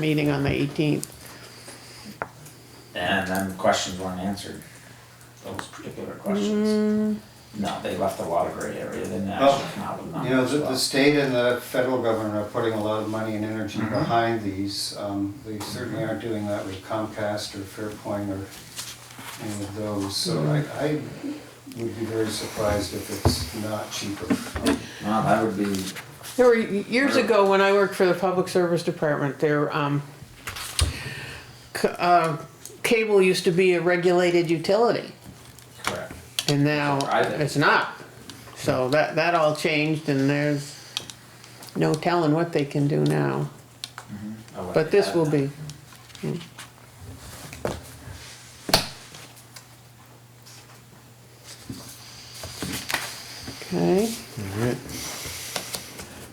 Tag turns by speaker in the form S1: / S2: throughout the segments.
S1: meeting on the eighteenth.
S2: And then questions weren't answered, those particular questions. No, they left a lot of gray area, they didn't actually come out with
S3: You know, the, the
S2: numbers,
S3: state and the federal government are putting a lot of money and energy behind these. Um, They certainly aren't doing that with Comcast or Fairpoint or any of those, so I, I would be very surprised if it's not cheaper.
S2: but, no, that would be,
S1: There were, years ago, when I worked for the Public Service Department, there, um, c- uh, cable used to be a regulated utility,
S2: correct.
S1: and now
S2: Private.
S1: it's not. So that, that all changed, and there's no telling what they can do now,
S2: I would
S1: but this
S2: add
S1: will
S2: that.
S1: be. Okay.
S4: Alright,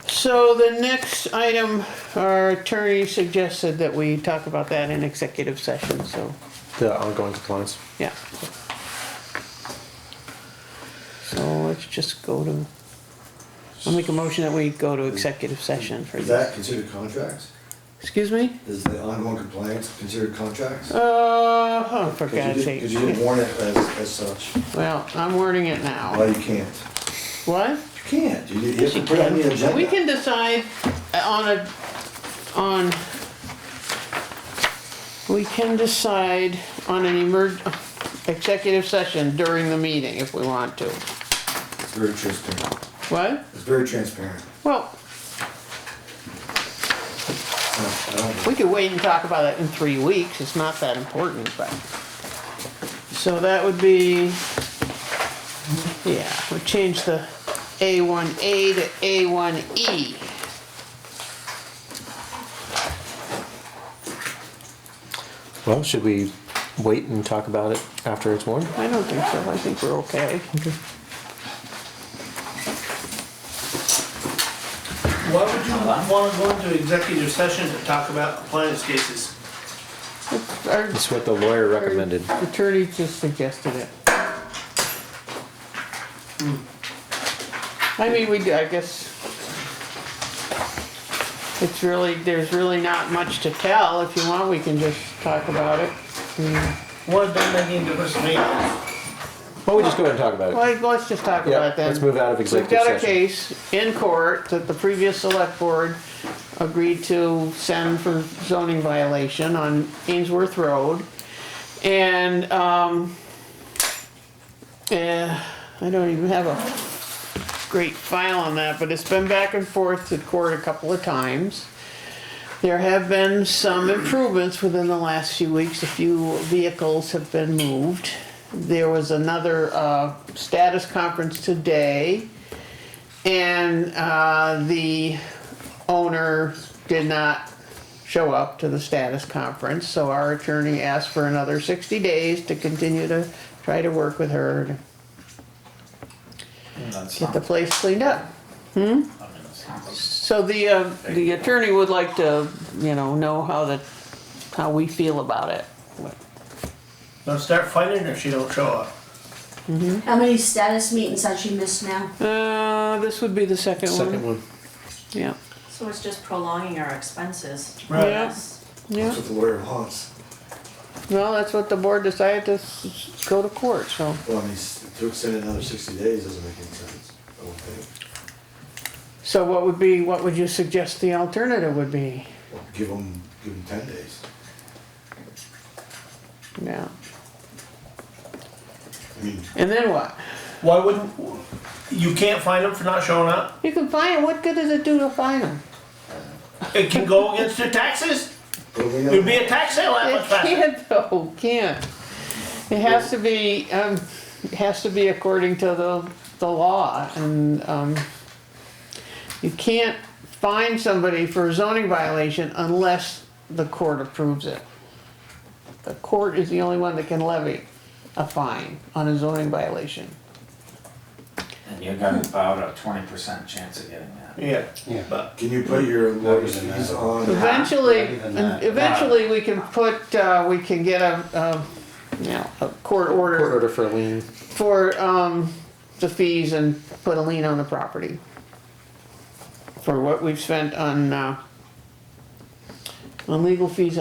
S1: So the next item, our attorney suggested that we talk about that in executive session, so,
S4: the ongoing compliance.
S1: yeah. So let's just go to, I'll make a motion that we go to executive session for
S5: Is
S1: this.
S5: that considered contracts?
S1: Excuse me?
S5: Is the ongoing compliance considered contracts?
S1: Uh, oh, for
S5: 'Cause you
S1: God's
S5: did-
S1: sake.
S5: Cause you didn't warn it as, as such.
S1: Well, I'm wording it
S5: Well,
S1: now.
S5: you can't.
S1: What?
S5: You can't. You, you
S1: Yes,
S5: have to
S1: you
S5: put it on the
S1: can.
S5: agenda.
S1: We can decide uh, on a, on, we can decide on an emerg, executive session during the meeting if we want to.
S5: It's very transparent.
S1: What?
S5: It's very transparent.
S1: Well,
S5: No, I don't,
S1: we could wait and talk about it in three weeks, it's not that important, but. So that would be, yeah, we'll change the A1A to E. A1E.
S4: Well, should we wait and talk about it after it's warned?
S1: I don't think so, I think we're okay.
S6: Why would you
S2: Hello?
S6: want to go into executive session to talk about appliance cases?
S1: Our
S4: It's what the lawyer recommended.
S1: Attorney just suggested it. Hmm. I mean, we, I guess. It's really, there's really not much to tell. If you want, we can just talk about it.
S6: What does that mean to us, man?
S4: Why don't we just go ahead and talk about it?
S1: Well, let's just talk
S4: Yeah,
S1: about it then.
S4: let's move out of executive
S1: We've got a
S4: session.
S1: case in court that the previous select board agreed to send for zoning violation on Ainsworth Road. And, um, eh, I don't even have a great file on that, but it's been back and forth to court a couple of times. There have been some improvements within the last few weeks. A few vehicles have been moved. There was another uh, status conference today, and uh, the owner did not show up to the status conference, so our attorney asked for another 60 days to continue to try to work with her to
S2: That's
S1: get
S2: not,
S1: the place cleaned up.
S2: I mean, that's not,
S1: So the, uh, the attorney would like to, you know, know how the, how we feel about it.
S6: They'll start fighting if she don't show up.
S7: How many status meetings has she missed now?
S1: Uh, this would be the second
S4: Second
S1: one.
S4: one.
S1: Yeah,
S8: So it's just prolonging our expenses.
S6: Right.
S1: Yeah.
S8: Yes.
S1: yeah.
S5: that's what the lawyer wants.
S1: Well, that's what the board decided to s- s- go to court, so.
S5: Well, I mean, s- to extend it another sixty days doesn't make any sense, I don't think.
S1: So what would be, what would you suggest the alternative would be?
S5: Well, give them, give them ten days.
S1: Yeah.
S5: I mean,
S1: And then what?
S6: Why wouldn't, you can't find them for not showing up?
S1: You can fine 'em. What good does it do to fine them?
S6: It can go against your taxes.
S5: but we
S6: There'd
S5: know,
S6: be a tax sale that
S1: It
S6: much faster.
S1: can't though, can't. It has to be, um, it has to be according to the, the law and, um, you can't fine somebody for a zoning violation unless the court approves it. The court is the only one that can levy a fine on a zoning violation.
S2: and you got about a twenty percent chance of getting that.
S6: Yeah,
S3: Yeah.
S6: but
S5: can you put your lawyer's
S3: Not even
S5: fees
S3: that.
S5: on?
S1: Eventually,
S3: Not even that.
S1: eventually we can put, uh, we can get a, a, you know, a court order.
S4: Court order for a lien.
S1: for um, the fees and put a lien on the property. For what we've spent on uh, on legal fees